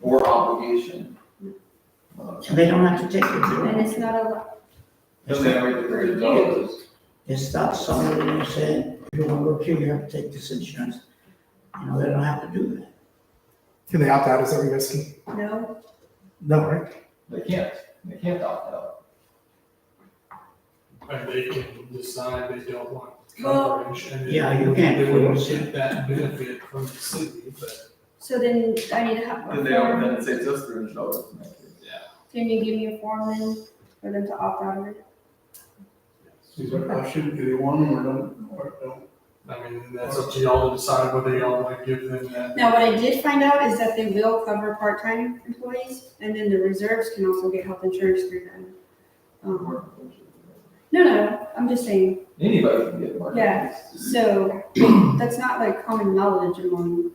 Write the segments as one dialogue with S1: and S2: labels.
S1: or obligation. Uh,
S2: They don't have to take it, do
S3: And
S2: they?
S3: it's not a,
S1: Just that right there, it does.
S2: It stops somebody and they say, if you wanna work here, you have to take this insurance. You know, they don't have to do that.
S4: Can they opt out? Is that what you're asking?
S3: no,
S4: No, right?
S1: They can't, they can't opt out.
S5: And they can decide they don't want
S3: Well-
S5: coverage. and
S2: Yeah, you can't
S5: They wouldn't
S2: force it.
S5: get that benefit from the city, but
S3: so then I need to have a
S1: Then they don't,
S3: form,
S1: then it saves us three hundred dollars. in that case.
S3: can you give me a form then for them to opt out of it?
S6: Is there a option, do they want them or don't, or don't?
S5: I mean, that's up to y'all to decide whether y'all want to give them that.
S3: Now, what I did find out is that they will cover part-time employees, and then the reserves can also get health insurance through them. Um, No, no, I'm just saying,
S1: Anybody can get market.
S3: Yeah. so that's not like common knowledge among
S5: Like,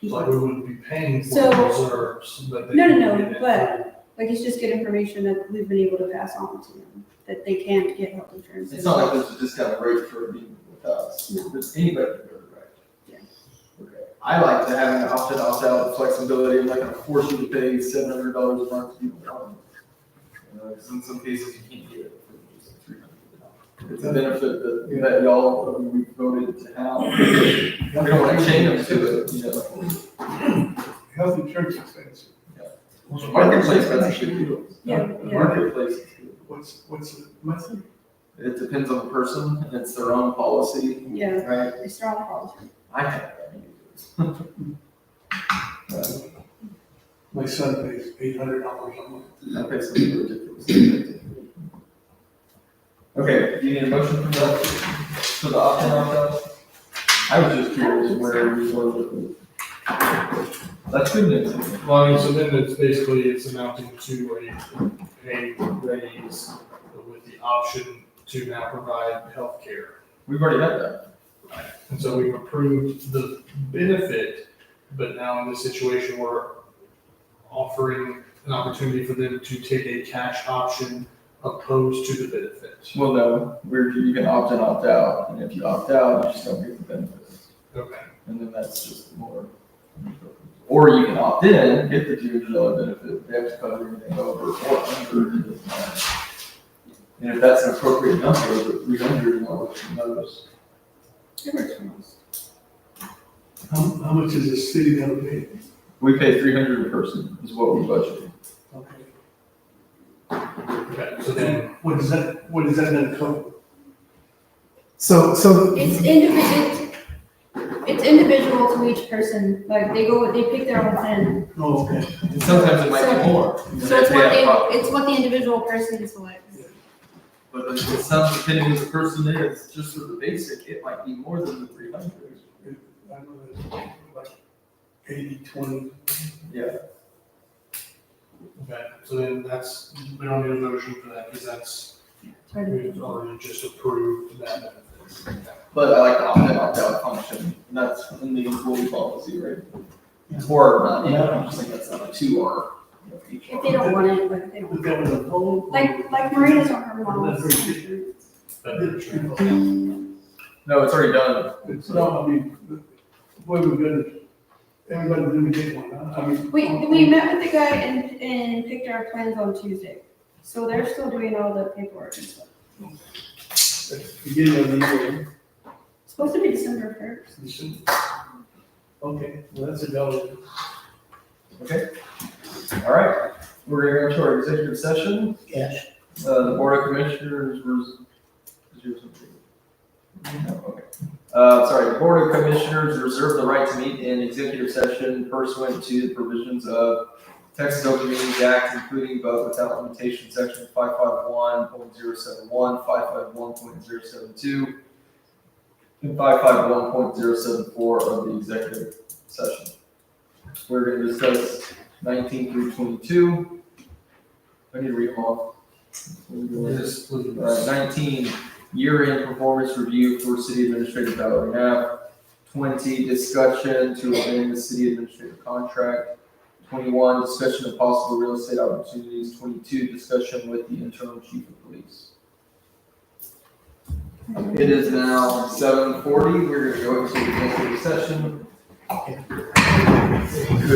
S3: people.
S5: we wouldn't be paying for
S3: So-
S5: the reserves, but they.
S3: No, no,
S5: can
S3: no,
S5: get it
S3: but- Like, it's just good information that we've been able to pass on to them, that they can get health insurance.
S1: It's not like there's a discount rate for being with us,
S3: No.
S1: There's anybody can go to right.
S3: Yeah.
S1: Okay. I like to have an opt-in, opt-out flexibility, I'm not gonna force you to pay seven hundred dollars a month if you don't want it. You know, 'cause in some cases you can't do it for just three hundred. It's a benefit that, that y'all, uh, we voted to have, we don't wanna chain them to it, you know.
S6: Health insurance expense,
S1: Marketplace doesn't should do it.
S3: Yeah, yeah.
S1: Marketplace is good.
S6: what's, what's the monthly?
S1: It depends on the person, and it's their own policy,
S3: Yeah,
S1: right?
S3: it's not a policy.
S1: I have. that.
S6: My son pays eight hundred dollars a month.
S1: That makes it ridiculous. Okay, do you need a motion for that, for the opt-in, opt-out? I was just curious where you were with it. That's good news.
S5: Well, I mean, so then it's basically, it's amounting to a pay raise with the option to now provide health care.
S1: We've already had that.
S5: And so we've approved the benefit, but now in this situation, we're offering an opportunity for them to take a cash option opposed to the benefit.
S1: Well, no, we're, you can opt-in, opt-out, and if you opt out, you just don't get the benefits.
S5: Okay.
S1: And then that's just more. Or you can opt in, get the two hundred dollar benefit, they have to cover everything over or under, it doesn't matter. And if that's an appropriate number, but three hundred, you know, it's notice.
S3: It works for most.
S6: How, how much is the city gonna pay?
S1: We pay three hundred a person is what we budgeted.
S6: Okay.
S5: Okay, so then,
S6: Then, what is that, what is that gonna cover?
S4: So, so,
S3: It's individual, it's individual to each person, like, they go, they pick their own plan.
S6: Oh, okay.
S1: And sometimes it might be more.
S3: So it's what they, it's what the individual person selects.
S1: But it's some, depending who the person is, just for the basic, it might be more than the three hundred.
S6: I know that's like eighty, twenty.
S1: Yeah.
S5: okay, so then that's, we don't need a motion for that because that's,
S3: Try to-
S5: we've already just approved that benefit.
S1: But I like the opt-in, opt-out function, and that's in the employee policy, right? Or, uh, yeah, I'm just thinking that's not a two or. you know, each
S3: If
S1: or.
S3: they don't want it, like, they
S6: But
S3: don't.
S6: that was a whole.
S3: Like, like Marina's on her mom's.
S5: But-
S1: No, it's already done.
S6: It's, no, I mean, boy, we're gonna, everybody's gonna get one, huh? I mean.
S3: We, we met with the guy and, and picked our plans on Tuesday, so they're still doing all the paperwork and stuff.
S6: Beginning of the year.
S3: It's Supposed to be December first.
S6: you should- Okay, well, that's a dollar.
S1: All right, we're going to go to our executive session.
S2: Yes,
S1: Uh, the Board of Commissioners was, is yours something? No, okay. Uh, sorry, the Board of Commissioners reserve the right to meet in executive session pursuant to the provisions of Texas Open Meetings Act, including but without limitation, section 551.071, 551.072, and five five one point zero seven four of the executive session. We're gonna discuss nineteen through twenty-two. I need to read them all.
S5: Yes, please.
S1: Uh, Nineteen, year-end performance review for city administrative Valerie Knapp. Twenty, discussion to amend the city administrative contract. Twenty-one, discussion of possible real estate opportunities. Twenty-two, discussion with the internal chief of police. It is now seven forty. We're gonna go into executive session.